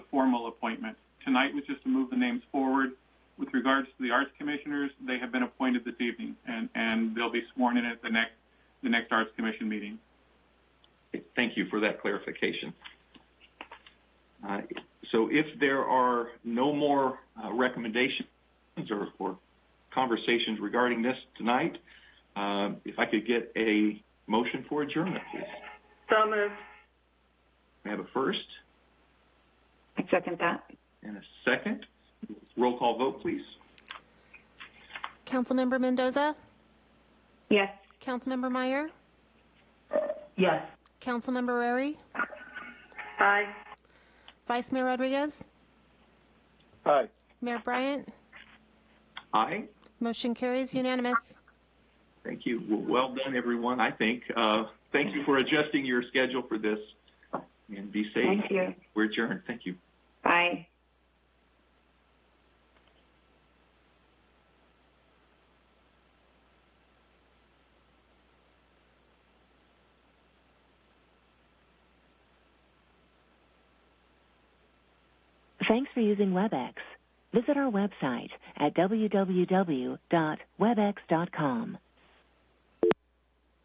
formal appointment. Tonight was just to move the names forward. With regards to the arts commissioners, they have been appointed this evening, and, and they'll be sworn in at the next, the next arts commission meeting. Thank you for that clarification. Uh, So if there are no more uh, recommendations or or conversations regarding this tonight, uh, if I could get a motion for adjournment, please. So moved. We have a first I second that. and a second. Roll call vote, please. Councilmember Mendoza, Yes. Councilmember Meyer, Yes. Councilmember Rary, Aye. Vice Mayor Rodriguez, Aye. Mayor Bryant. Aye. Motion carries unanimous. Thank you. Well, well done, everyone, I think. Uh, Thank you for adjusting your schedule for this, and be safe. Thank you. We're adjourned. Thank you. Aye. Thanks for using WebEx. Visit our website at www.webex.com.